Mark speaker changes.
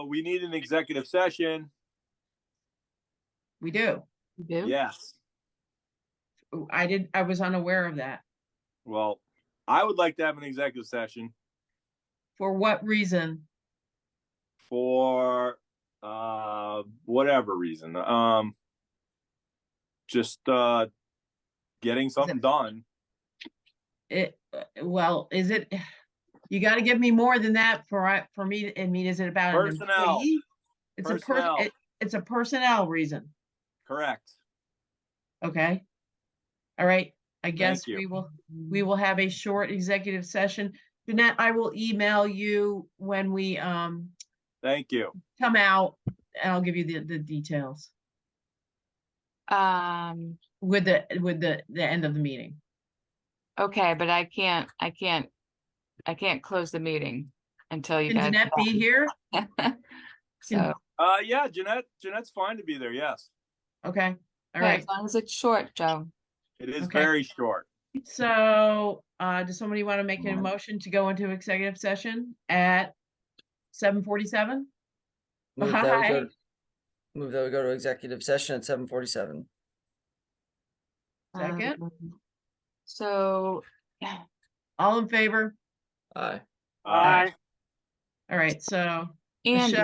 Speaker 1: we need an executive session.
Speaker 2: We do.
Speaker 3: You do?
Speaker 1: Yes.
Speaker 2: Ooh, I did, I was unaware of that.
Speaker 1: Well, I would like to have an executive session
Speaker 2: For what reason?
Speaker 1: for uh whatever reason. Um just uh getting something done.
Speaker 2: It, uh, well, is it, you gotta give me more than that for, I for me, I mean, is it about an
Speaker 1: Personnel.
Speaker 2: employee? It's a
Speaker 1: Personnel.
Speaker 2: person, it's a personnel reason,
Speaker 1: Correct.
Speaker 2: okay? All right, I guess
Speaker 1: you.
Speaker 2: we will, we will have a short executive session. Jeanette, I will email you when we, um,
Speaker 1: Thank you.
Speaker 2: come out and I'll give you the, the details
Speaker 3: Um,
Speaker 2: with the, with the, the end of the meeting.
Speaker 3: okay, but I can't, I can't, I can't close the meeting until you
Speaker 2: Can
Speaker 3: guys.
Speaker 2: Jeanette be here?
Speaker 3: So,
Speaker 1: Uh yeah, Jeanette, Jeanette's fine to be there. Yes.
Speaker 2: Okay, all
Speaker 3: okay,
Speaker 2: right.
Speaker 3: as long as it's short, Joe.
Speaker 1: It is
Speaker 2: Okay.
Speaker 1: very short.
Speaker 2: So, uh, does somebody want to make a
Speaker 3: Mhm.
Speaker 2: motion to go into executive session at seven forty-seven?
Speaker 4: Move that we
Speaker 2: Bye.
Speaker 4: go, move that we go to executive session at seven forty-seven.
Speaker 2: Second.
Speaker 3: Um, So,
Speaker 2: All in favor?
Speaker 4: Aye.
Speaker 1: Uh,
Speaker 2: All right, so
Speaker 3: Andy,